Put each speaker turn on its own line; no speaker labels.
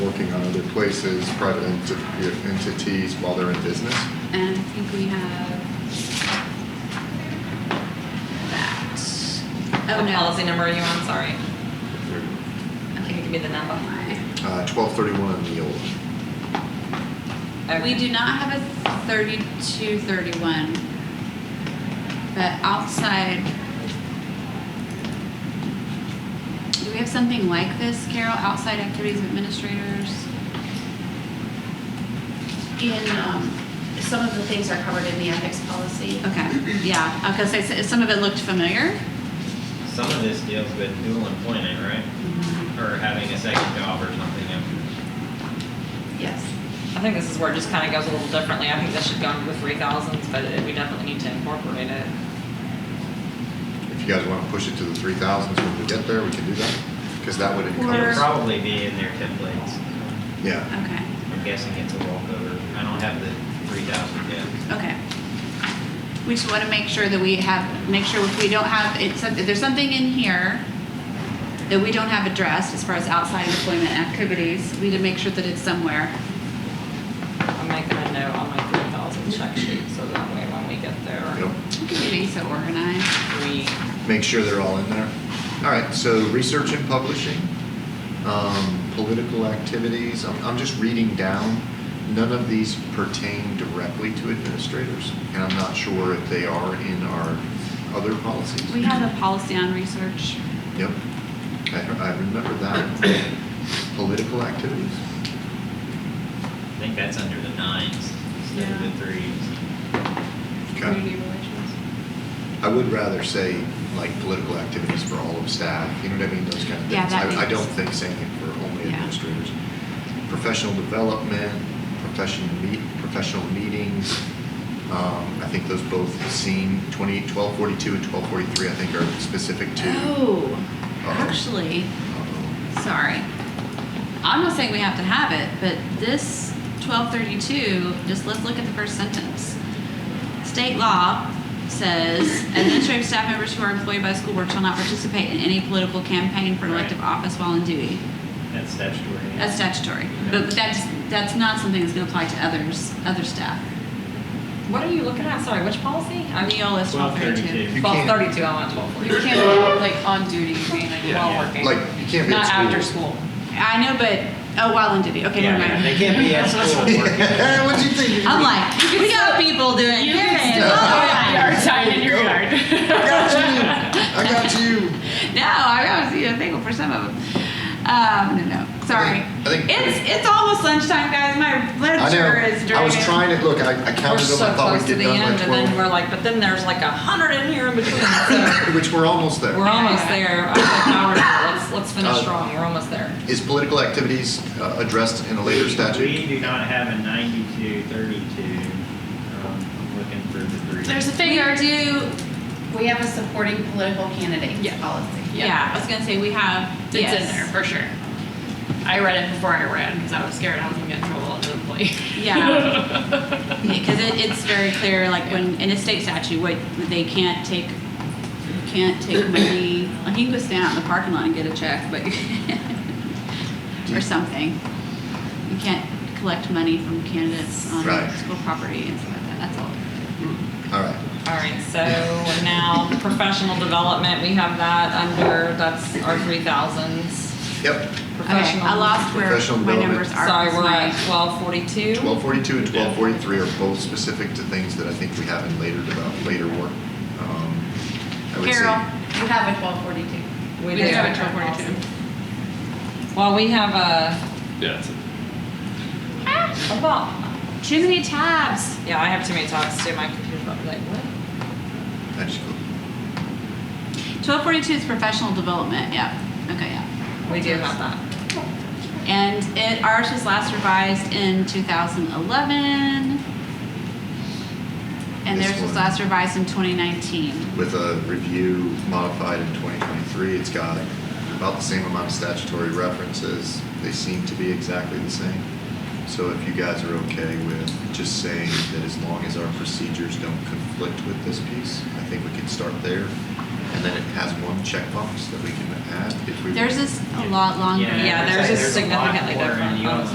working on other places, private enti- entities while they're in business?
And I think we have that. Oh,
What
no.
policy number are you on? Sorry. Can you give
Okay.
me the number?
Uh, 1231 on the old.
Okay.
We do not have a thirty-two, thirty-one. But outside. Do we have something like this, Carol, outside activities of administrators?
In, um, some of the things are covered in the ethics policy.
Okay, yeah, because I said, some of it looked familiar.
Some of this deals with dual employment, right? Or having a second job or something. yeah.
Yes.
I think this is where it just kind of goes a little differently. I think this should go into the three thousands, but it- we definitely need to incorporate it.
If you guys want to push it to the 3,000s when we get there, we can do that, because that would
Or-
encompass.
It'll probably be in their templates.
Yeah,
Okay,
I'm guessing it's a walkover. I don't have the three thousand yet.
okay. We just want to make sure that we have, make sure if we don't have, it's, if there's something in here that we don't have addressed as far as outside employment activities, we need to make sure that it's somewhere.
I'm making a note on my three thousand check sheet, so that way when we get there,
Yep.
Look at me, so organized.
we,
make sure they're all in there. All right, so research and publishing, um, political activities, I'm, I'm just reading down. None of these pertain directly to administrators, and I'm not sure if they are in our other policies.
We have a policy on research.
Yep, I, I remember that. Political activities,
I think that's under the nines instead of the threes.
okay.
relations.
I would rather say like political activities for all of staff, you know what I mean, those kind of things.
Yeah,
I, I
that makes-
don't think saying it for only
Yeah.
administrators. Professional development, professional meet, professional meetings, um, I think those both seem twenty, twelve forty-two and twelve forty-three, I think are specific to. um,
Oh, actually,
uh-oh,
sorry. I'm not saying we have to have it, but this 1232, just let's look at the first sentence. State law says administrative staff members who are employed by a school board shall not participate in any political campaign for an elective
Right.
office while in duty.
That's statutory.
That's statutory, but but that's, that's not something that's gonna apply to others, other staff.
what are you looking at? Sorry, which policy? I mean,
ELS 1232.
1232.
You
twelve
can't-
thirty-two, I want twelve forty-two.
You can't, like, on duty, being like
Yeah,
while
yeah.
working.
Like, you can't be at
Not
school.
after school.
I know, but, oh, while in duty, okay,
Yeah,
never
yeah, they
mind.
can't be at school working.
What'd you think?
I'm like, we got people doing
You
this.
can
and
still
all that.
have yard sign in your yard.
I got you, I got you.
No, I was you know, thankful for some of them. Um, no, no, sorry.
I think-
it's it's almost lunchtime, guys. My
I know.
literature is draining.
I was trying to, look, I, I
We're
counted them,
so
I thought
close
we'd
to
get
the
done
end,
by
and then we're
twelve.
like, but then there's like a hundred in here in between, so
Which we're almost there.
we're almost there. I was like, now we're not. let's, let's finish
Uh,
strong, we're almost there.
Is political activities uh, addressed in a later
We
statute?
do not have a ninety-two, thirty-two. Um, I'm looking for the three.
There's a
We
figure.
do.
We have a supporting political candidate
Yeah.
policy.
Yeah. I was gonna say we have.
It's
yes.
in there for sure. I read it before I ran because I was scared I was gonna get in trouble at the employee.
Yeah. because it, it's very clear, like when in a state statute, what they can't take, can't take money. Like you can go stand out in the parking lot and get a check, but or something. You can't collect money from candidates on
Right.
school property and stuff like that. That's all.
All right.
All right, so now professional development, we have that under, that's our three thousands.
Yep.
Okay, I lost where
Professional
my
development.
numbers are.
Sorry, we're at
It's
twelve forty-two.
1242 and 1243 are both specific to things that I think we have in later develop, later work. Um, I
my-
would say-
Carol,
You have a twelve forty-two.
We
do.
did have a twelve forty-two.
Well, we have uh, a,
Yeah, it's a
what about,
too many tabs.
yeah, I have too many tabs too, my computer's about to be like, what?
I just go-
Twelve forty-two is professional development. Yep. Okay. Yeah.
We do have that.
And it ours was last revised in 2011, and
This
theirs was
one.
last revised in 2019.
With a review modified in 2023, it's got about the same amount of statutory references. They seem to be exactly the same. So if you guys are okay with just saying that as long as our procedures don't conflict with this piece, I think we can start there. And then it has one checkbox that we can add if we.
Theirs is a lot longer.
Yeah, there's
there's
just
a lot
significantly
more in
different.
the
Oh,
old